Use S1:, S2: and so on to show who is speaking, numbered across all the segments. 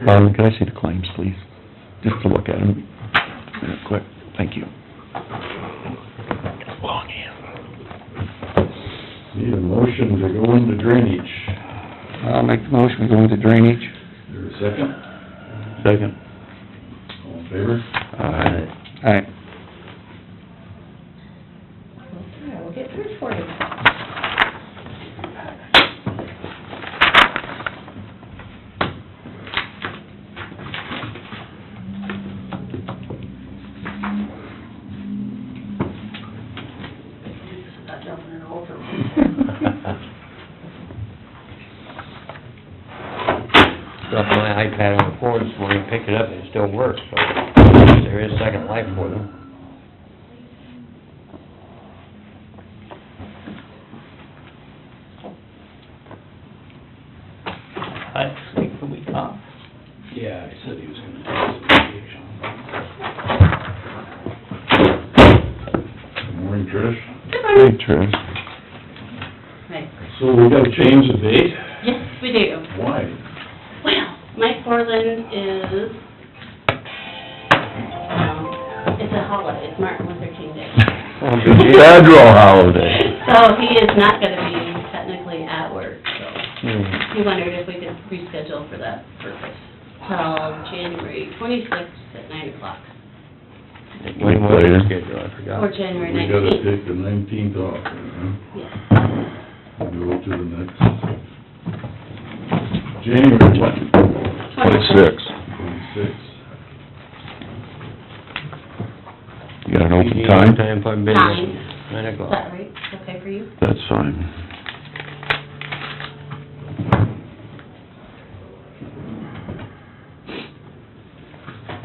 S1: Harlan, can I see the claims, please? Just to look at them, real quick, thank you. Long hand.
S2: Need a motion to go into drainage.
S1: I'll make the motion, we go into drainage.
S2: There a second?
S1: Second.
S2: All in favor?
S1: Aye. Aye.
S3: Yeah, we'll get through for you. Not jumping in over.
S4: Dropped my iPad on the floor this morning, picked it up, and it still works, so there is second life for them. I think the week off.
S2: Yeah, I said he was gonna. Good morning, Trish.
S1: Hey, Trish.
S5: Right.
S2: So we gotta change the date?
S5: Yes, we do.
S2: Why?
S5: Well, Mike Portland is, um, it's a holiday, it's Martin Luther King Day.
S1: Federal holiday.
S5: So he is not gonna be technically at work, so
S1: Hmm.
S5: he wondered if we could reschedule for that purpose. So January twenty-sixth at nine o'clock,
S4: When was the schedule, I
S5: or
S4: forgot.
S5: January
S2: We gotta
S5: nineteenth.
S2: take the nineteenth off, huh?
S5: Yes.
S2: Go to the next. January what?
S5: 26th.
S2: Twenty-sixth.
S1: You got an open
S4: Eugene,
S1: time?
S4: what Time if I've been
S5: Nine.
S4: there? Nine
S5: Is
S4: o'clock.
S5: that right? Okay for you?
S1: That's fine.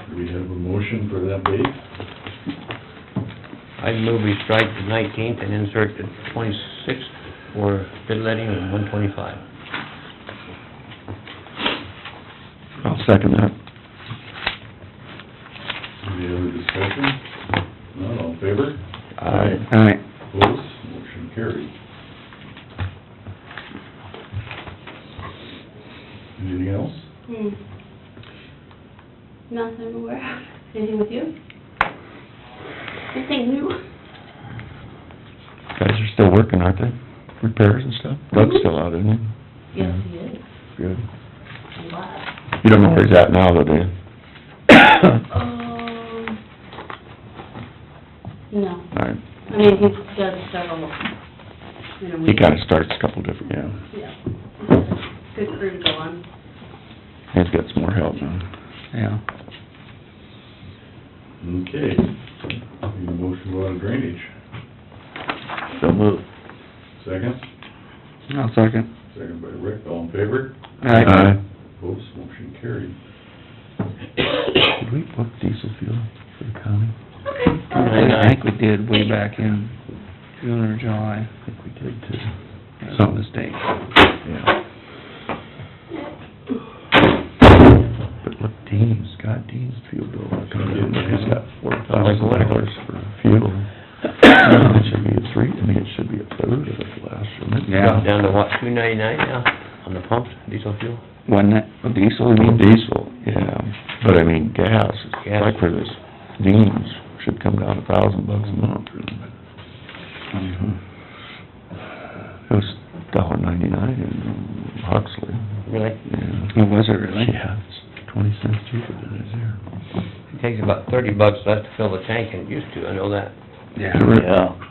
S2: Do we have a motion for that date?
S4: I move we strike the nineteenth and insert the twenty-sixth for bid letting and one twenty-five.
S1: I'll second that.
S2: Any other discussion? None, all in favor?
S1: Aye. Aye.
S2: Opposed, motion carried. Anything else?
S5: Hmm. Nothing aware of. Anything with you? Anything new?
S1: Guys are still working, aren't they? Repairs and stuff? Doug's still out, isn't he?
S5: Yes, he is.
S1: Good.
S5: Wow.
S1: You don't know where he's at now, though, do you?
S5: Um, no.
S1: All right.
S5: I mean, he does several in a
S1: He
S5: week.
S1: kinda starts a couple different, yeah.
S5: Yeah. He's got a Good crew to go on.
S1: He's got some more help now. Yeah.
S2: Okay. Need a motion to go out of drainage.
S1: So move.
S2: Second?
S1: I'll second.
S2: Second by Rick, all in favor?
S1: Aye.
S2: Opposed, motion carried.
S1: Did we book diesel fuel for the county?
S4: I think we
S1: did way back in June or July. I think we did too. Some mistake. Yeah. But look, Dean's got Dean's fuel bill, I come in, he's got four thousand dollars for fuel. It should be a three, I mean, it should be a third of it last, shouldn't it?
S4: Down to what, two ninety-nine now, on the pumps, diesel fuel?
S1: Wasn't it, diesel, you mean? Diesel, yeah, but I mean, gas,
S4: Gas.
S1: like for this, Dean's should come down a thousand bucks a month. Mm-hmm. It was dollar ninety-nine in Huxley,
S4: Really?
S1: yeah. Oh, was it really? Yeah, it's twenty cents cheaper than it is here.
S4: It takes about thirty bucks less to fill the tank than it used to, I know that.
S1: Yeah.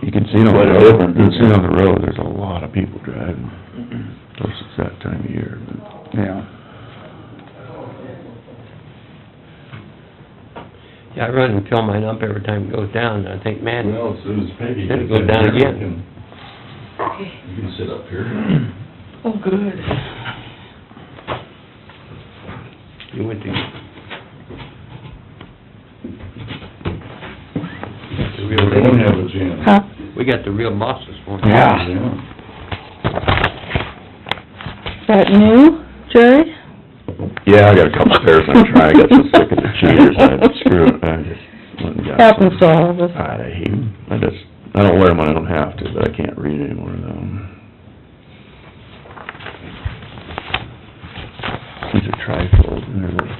S1: You can see it on the road, you can see it on the road, there's a lot of people driving, of course, it's that time of year, but. Yeah.
S4: Yeah, I run and fill mine up every time it goes down, and I think, man,
S2: Well, as soon as Peggy
S4: Then it
S2: gets
S4: goes
S2: in
S4: down
S2: here, we
S4: again.
S2: can- You can sit up here.
S4: you went to... The
S2: We
S4: real
S2: don't have
S4: deal.
S2: a jam.
S4: We got the real boss this morning.
S1: Yeah.
S2: Yeah.
S6: That new, Jerry?
S1: Yeah, I gotta come upstairs and try, I got so sick of the cheaters, I screw it, I just went and got some.
S6: Happens to all of us.
S1: I hate 'em. I just, I don't wear them, I don't have to, but I can't read anymore though. These are trifold, and they're like